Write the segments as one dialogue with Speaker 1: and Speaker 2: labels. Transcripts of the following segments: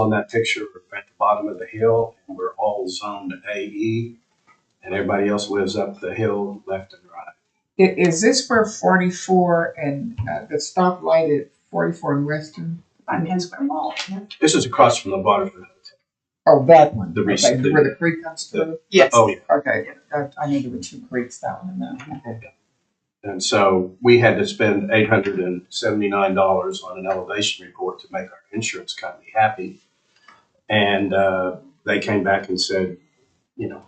Speaker 1: on that picture at the bottom of the hill, and we're all zoned AE, and everybody else lives up the hill left and right.
Speaker 2: I- Is this where forty-four and, uh, the stoplight at forty-four and Western?
Speaker 3: on Penn Square Mall.
Speaker 1: This is across from the Butterfield.
Speaker 2: Oh, that one.
Speaker 1: The rec-
Speaker 2: Okay,
Speaker 1: the-
Speaker 2: Where the creek comes
Speaker 1: the-
Speaker 2: through?
Speaker 3: Yes.
Speaker 1: Oh, yeah.
Speaker 2: Okay, I, I knew there were two creeks down in that.
Speaker 1: And so we had to spend eight hundred and seventy-nine dollars on an elevation report to make our insurance company happy. And uh, they came back and said, you know,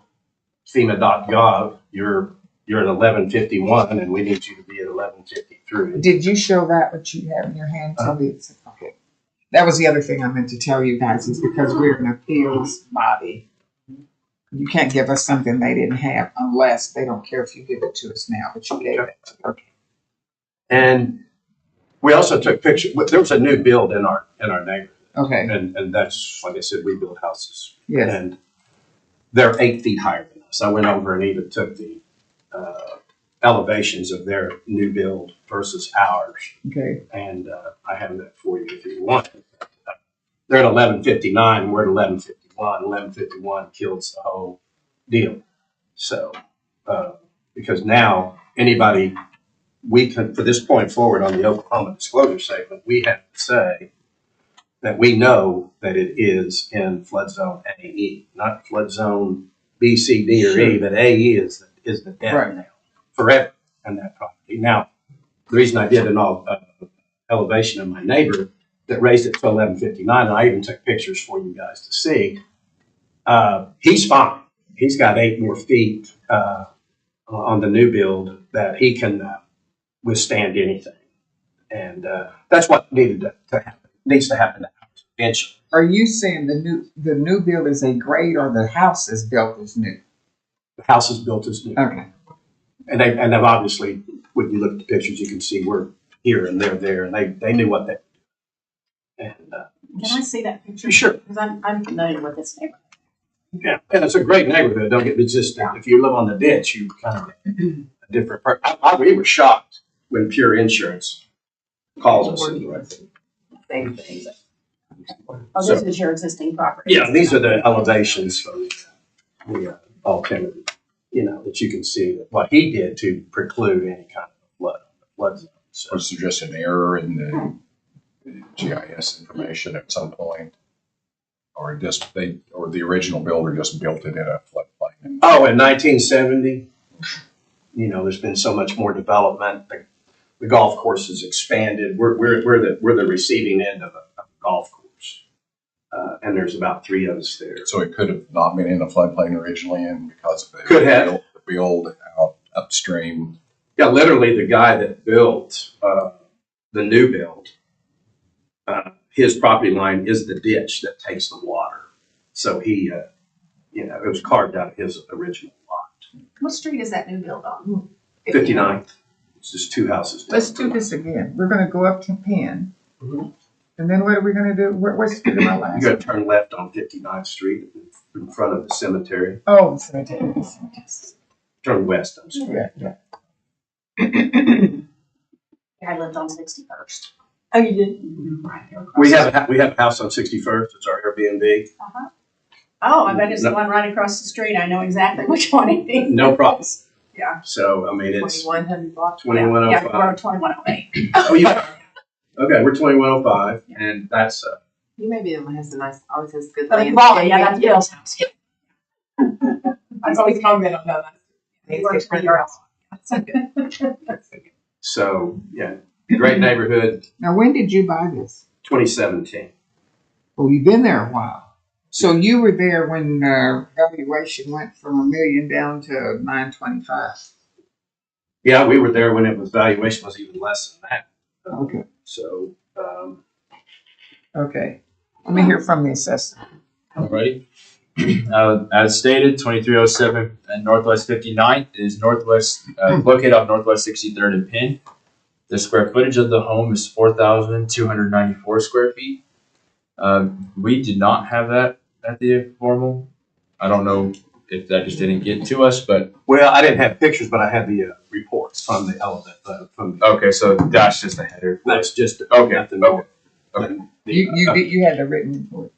Speaker 1: FEMA.gov, you're you're at eleven fifty-one, and we need you to be at eleven fifty-three.
Speaker 2: Did you show that what you have in your hand
Speaker 1: Uh-huh.
Speaker 2: to me? It's- okay. That was the other thing I meant to tell you guys is because we're an appeals body. You can't give us something they didn't have unless they don't care if you give it to us now, but you gave it. Okay.
Speaker 1: And we also took pictures. There was a new build in our in our neighborhood,
Speaker 2: Okay,
Speaker 1: and and that's like I said, we build houses
Speaker 2: yes.
Speaker 1: And they're eight feet higher than us. I went over and even took the uh, elevations of their new build versus ours.
Speaker 2: Okay,
Speaker 1: And uh, I have that for you if you want. They're at eleven fifty-nine, we're at eleven fifty-one. Eleven fifty-one kills the whole deal. So, uh, because now anybody, we can, for this point forward on the Oklahoma disclosure statement, we have to say that we know that it is in flood zone AE, not flood zone B, C, D, or E, but AE is, is the death
Speaker 2: Right.
Speaker 1: now, forever on that property. Now, the reason I did an all, uh, elevation of my neighbor that raised it to eleven fifty-nine, and I even took pictures for you guys to see. Uh, he's fine. He's got eight more feet, uh, on the new build that he can uh, withstand anything. And, uh, that's what needed to, to happen, needs to happen to house eventually.
Speaker 2: are you saying the new, the new build is a grade or the house is built is new?
Speaker 1: The house is built as new.
Speaker 2: Okay,
Speaker 1: And they, and they've obviously, when you look at the pictures, you can see we're here and they're there and they, they knew what they. And, uh,
Speaker 3: Can I see that picture?
Speaker 1: sure,
Speaker 3: Because I'm, I'm familiar with this neighborhood.
Speaker 1: Yeah, and it's a great neighborhood. Don't get me just if you live on the ditch, you kind of a different. Per- I, I, we were shocked when Pure Insurance called us. and directed.
Speaker 3: Same things. Oh, this is your existing property.
Speaker 1: Yeah, these are the elevations from the uh, alternative. You know that you can see that what he did to preclude any kind of flood, flood zone. So,
Speaker 4: was there just an error in the GIS information at some point? Or just they, or the original builder just built it in a floodplain? and-
Speaker 1: oh, in 1970, you know, there's been so much more development. The, the golf course has expanded. We're, we're, we're the we're the receiving end of a, of a golf course, uh, and there's about three of us there.
Speaker 4: So it could have not been in a floodplain originally and because of the.
Speaker 1: Could have.
Speaker 4: build- the Build out upstream.
Speaker 1: Yeah, literally the guy that built uh, the new build, uh, his property line is the ditch that takes the water. So he, uh, you know, it was carved out of his original lot.
Speaker 3: What street is that new build on?
Speaker 1: 59th, it's just two houses. down.
Speaker 2: let's do this again. We're gonna go up to Penn.
Speaker 1: Mhm.
Speaker 2: And then what are we gonna do? What, what's the my
Speaker 1: You
Speaker 2: last?
Speaker 1: gotta turn left on 59th Street in front of the cemetery,
Speaker 2: Oh, cemetery.
Speaker 1: turn west, I'm sorry.
Speaker 2: Yeah, yeah.
Speaker 3: I lived on sixty-first. Oh, you did?
Speaker 1: We have, a hou- we have a house on 61st, it's our Airbnb,
Speaker 3: Uh-huh. Oh, I bet it's the one right across the street. I know exactly which one it is.
Speaker 1: no problem.
Speaker 3: Yeah.
Speaker 1: So, I mean, it's,
Speaker 3: Twenty-one hundred block.
Speaker 1: 2105.
Speaker 3: Yeah, or twenty-one oh eight.
Speaker 1: oh, you, okay, we're 2105 and that's, uh,
Speaker 5: You may be the one who has the nice, always has good
Speaker 3: But in
Speaker 5: land.
Speaker 3: Raleigh, Oh, yeah, that's Bill's house.
Speaker 5: I always comment on that.
Speaker 3: He works for your house.
Speaker 1: So, yeah, great neighborhood,
Speaker 2: Now, when did you buy this?
Speaker 1: 2017.
Speaker 2: Well, you've been there a while. So you were there when uh, valuation went from a million down to nine twenty-five.
Speaker 1: Yeah, we were there when it was valuation was even less than that.
Speaker 2: Okay,
Speaker 1: So, um,
Speaker 2: okay. Let me hear from the assessor.
Speaker 6: Alrighty. Uh, as stated, twenty-three oh seven and Northwest 59th is northwest, uh,
Speaker 1: Hmm.
Speaker 6: located on Northwest sixty-third and Penn. The square footage of the home is four thousand two hundred ninety-four square feet. Um, we did not have that at the informal. I don't know if that just didn't get to us, but,
Speaker 1: well, I didn't have pictures, but I had the uh, reports from the element, uh, from the,
Speaker 6: okay, so that's just a header.
Speaker 1: that's just,
Speaker 6: Okay,
Speaker 1: nothing
Speaker 6: okay.
Speaker 1: more.
Speaker 6: Okay.
Speaker 1: The,
Speaker 2: You, you,
Speaker 1: uh,
Speaker 2: did- you had the written report.